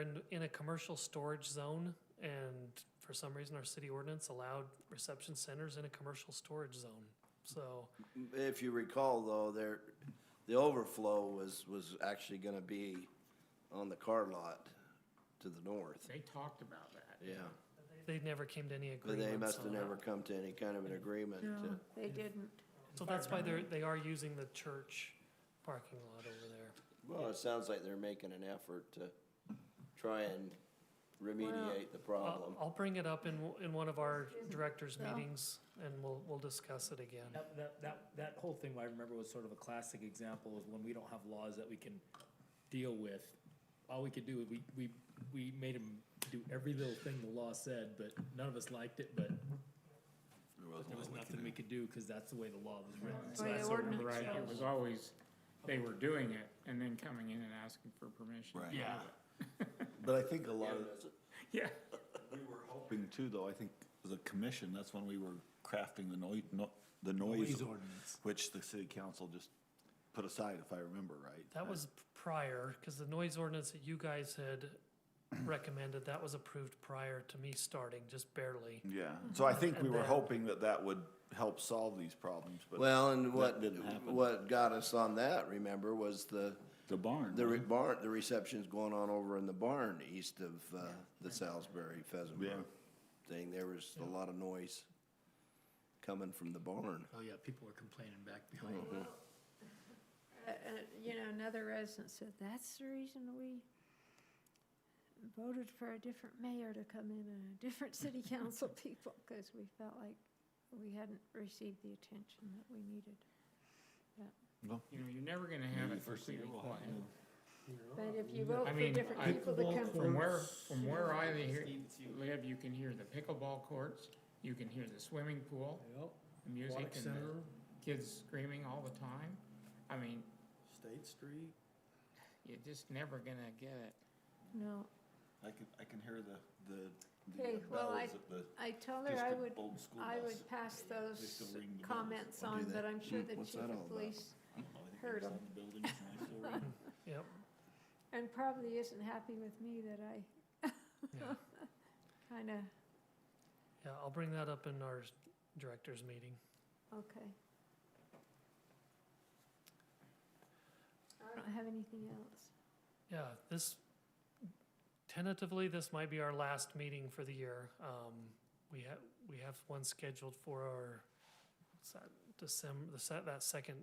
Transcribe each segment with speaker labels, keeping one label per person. Speaker 1: in, in a commercial storage zone, and for some reason, our city ordinance allowed reception centers in a commercial storage zone. So,
Speaker 2: If you recall, though, there, the overflow was, was actually gonna be on the car lot to the north,
Speaker 3: They talked about that.
Speaker 2: yeah.
Speaker 1: they never came to any
Speaker 2: But
Speaker 1: agreement.
Speaker 2: they must have
Speaker 1: on that.
Speaker 2: never come to any kind of an agreement to,
Speaker 4: They didn't.
Speaker 1: So that's why they're, they are using the church parking lot over there.
Speaker 2: well, it sounds like they're making an effort to try and remediate the problem.
Speaker 1: I'll, I'll bring it up in, in one of our directors'
Speaker 4: Yeah.
Speaker 1: meetings, and we'll, we'll discuss it again.
Speaker 5: That, that, that, that whole thing, I remember, was sort of a classic example of when we don't have laws that we can deal with. All we could do, we, we, we made them do every little thing the law said, but none of us liked it, but there was nothing we could do, cause that's the way the law was written. So
Speaker 4: Way the
Speaker 5: that's-
Speaker 3: So
Speaker 4: ordinance
Speaker 3: Right, it
Speaker 4: goes.
Speaker 3: was always, they were doing it and then coming in and asking for permission.
Speaker 6: Right.
Speaker 5: Yeah,
Speaker 6: But I think a lot of,
Speaker 3: Yeah,
Speaker 6: we were hoping too, though, I think the commission, that's when we were crafting the noise, no, the noise.
Speaker 5: Noise ordinance.
Speaker 6: Which the city council just put aside, if I remember right.
Speaker 1: That was prior, because the noise ordinance that you guys had recommended, that was approved prior to me starting, just barely.
Speaker 6: Yeah, so I think we
Speaker 1: And
Speaker 6: were
Speaker 1: then-
Speaker 6: hoping that that would help solve these problems, but.
Speaker 2: Well, and what,
Speaker 6: didn't happen.
Speaker 2: what got us on that, remember, was the,
Speaker 6: The barn.
Speaker 2: the re-
Speaker 6: wasn't
Speaker 2: barn, the reception's going on over in the barn east of, uh, the Salisbury Pheasant
Speaker 6: Yeah.
Speaker 2: Run thing. There was a lot of noise coming from the barn.
Speaker 7: Oh, yeah, people were complaining back behind.
Speaker 4: Uh, uh, You know, another resident said, that's the reason we voted for a different mayor to come in and a different city council people, because we felt like we hadn't received the attention that we needed.
Speaker 3: you know, you're never gonna have it completely quiet.
Speaker 4: But if you vote
Speaker 3: I
Speaker 4: for
Speaker 3: mean,
Speaker 4: different
Speaker 3: I-
Speaker 4: people to come
Speaker 3: From
Speaker 4: from,
Speaker 3: where, from where I hear- live, you can hear the pickleball courts, you can hear the swimming pool, the music
Speaker 7: Aquatic
Speaker 3: and the
Speaker 7: center,
Speaker 3: kids screaming all the time. I mean,
Speaker 7: State Street.
Speaker 3: you're just never gonna get it.
Speaker 4: no.
Speaker 6: I can, I can hear the, the, the
Speaker 4: Okay, well, I,
Speaker 6: bells at the
Speaker 4: I told her I would,
Speaker 6: district old school
Speaker 4: I
Speaker 6: bus.
Speaker 4: would pass those
Speaker 6: still ring the bells.
Speaker 4: comments
Speaker 2: I'll do
Speaker 4: on,
Speaker 2: that.
Speaker 4: but I'm sure
Speaker 2: Hmm,
Speaker 4: the
Speaker 2: what's
Speaker 4: chief
Speaker 2: that all
Speaker 4: of
Speaker 2: about?
Speaker 4: police,
Speaker 6: I don't know, I think it
Speaker 4: heard
Speaker 6: was
Speaker 4: 'em.
Speaker 6: on the building, and I still ring.
Speaker 1: Yep,
Speaker 4: and probably isn't happy with me that I
Speaker 1: yeah,
Speaker 4: kind of
Speaker 1: yeah, I'll bring that up in our directors' meeting.
Speaker 4: Okay. I don't have anything else.
Speaker 1: Yeah, this, tentatively, this might be our last meeting for the year. Um, we have, we have one scheduled for our, what's that, December, the se- that second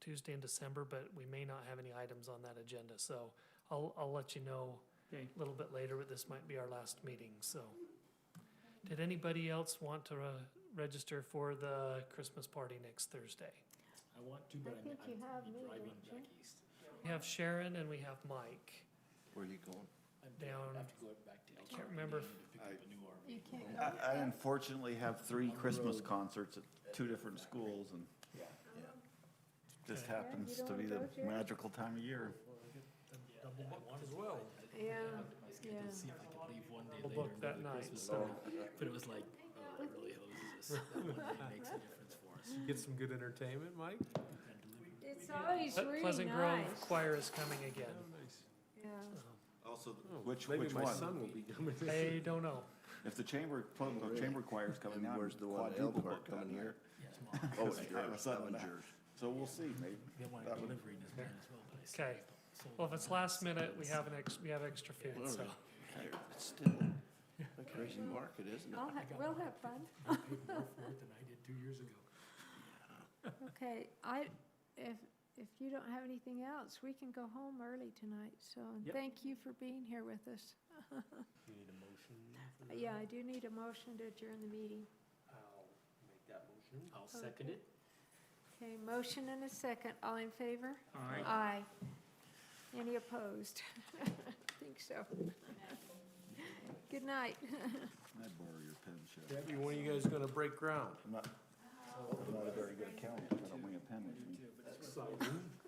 Speaker 1: Tuesday in December, but we may not have any items on that agenda, so I'll, I'll let you know
Speaker 3: Okay.
Speaker 1: a little bit later, but this might be our last meeting, so. Did anybody else want to, uh, register for the Christmas party next Thursday?
Speaker 5: I want to,
Speaker 4: I
Speaker 5: but I'm,
Speaker 4: think you have
Speaker 5: I'm
Speaker 4: me,
Speaker 5: driving
Speaker 4: don't you?
Speaker 5: back east.
Speaker 1: We have Sharon and we have Mike.
Speaker 2: Where are you going?
Speaker 5: I'm
Speaker 1: Down-
Speaker 5: I have to go back to.
Speaker 1: can't remember if-
Speaker 5: To pick up a new RV.
Speaker 4: You can't go.
Speaker 6: I, I unfortunately have three
Speaker 5: the
Speaker 6: Christmas
Speaker 5: road.
Speaker 6: concerts at two different schools and just
Speaker 4: Yeah, you
Speaker 6: happens
Speaker 4: don't
Speaker 6: to be
Speaker 4: wanna
Speaker 6: the
Speaker 4: go, Jerry?
Speaker 6: magical time of year.
Speaker 5: as well.
Speaker 4: Yeah,
Speaker 5: I was
Speaker 4: yeah.
Speaker 5: scheduled to see if I could leave one day
Speaker 1: We'll
Speaker 5: later.
Speaker 1: book
Speaker 5: and go
Speaker 1: that
Speaker 5: to
Speaker 1: night,
Speaker 5: Christmas
Speaker 1: so.
Speaker 5: party, But it was like, oh, it really hoses us. That one day makes a difference for us.
Speaker 8: Get some good entertainment, Mike?
Speaker 5: And delivery.
Speaker 4: It's always
Speaker 1: Ple-
Speaker 4: really
Speaker 1: Pleasant Grove
Speaker 4: nice.
Speaker 1: Choir is coming again.
Speaker 4: Yeah,
Speaker 6: Also,
Speaker 5: Oh,
Speaker 6: which,
Speaker 8: Oh, Maybe
Speaker 6: which
Speaker 8: my
Speaker 6: one?
Speaker 8: son will be coming.
Speaker 1: I don't know.
Speaker 6: If the chamber, the chamber choir's coming
Speaker 2: And
Speaker 6: out.
Speaker 2: where's the one at
Speaker 6: quadruple
Speaker 2: Elkhart
Speaker 6: booked that
Speaker 2: coming here?
Speaker 6: night.
Speaker 5: Yeah, tomorrow.
Speaker 2: Oh,
Speaker 6: I
Speaker 2: it's
Speaker 6: have a
Speaker 2: yours,
Speaker 6: son
Speaker 2: that
Speaker 6: in
Speaker 2: one's
Speaker 6: that.
Speaker 2: yours.
Speaker 6: So we'll see, maybe.
Speaker 5: They wanted
Speaker 6: That would-
Speaker 5: delivery in his plan as well, but I
Speaker 1: Okay,
Speaker 5: sold
Speaker 1: well, if
Speaker 5: it.
Speaker 1: it's last minute, we have an ex, we have extra food, so.
Speaker 2: It's still a crazy market, isn't it?
Speaker 4: I'll have, we'll have fun.
Speaker 5: I paid more for it than I did two years ago.
Speaker 4: Okay, I, if, if you don't have anything else, we can go home early tonight, so, and
Speaker 5: Yep.
Speaker 4: thank you for being here with us. Uh,
Speaker 8: You need a motion? for
Speaker 4: Yeah,
Speaker 8: that?
Speaker 4: I do need a motion to adjourn the meeting.
Speaker 8: I'll make that motion.
Speaker 5: I'll second it.
Speaker 4: Okay, motion and a second, all in favor?
Speaker 3: All right,
Speaker 4: Aye. Any opposed? I think so. Good night.
Speaker 6: Can I borrow your pen, Sheriff?
Speaker 8: Debbie, when are you guys gonna break ground?
Speaker 6: I'm not, I'm not a very good accountant, if I don't bring a pen with me.
Speaker 8: Exciting.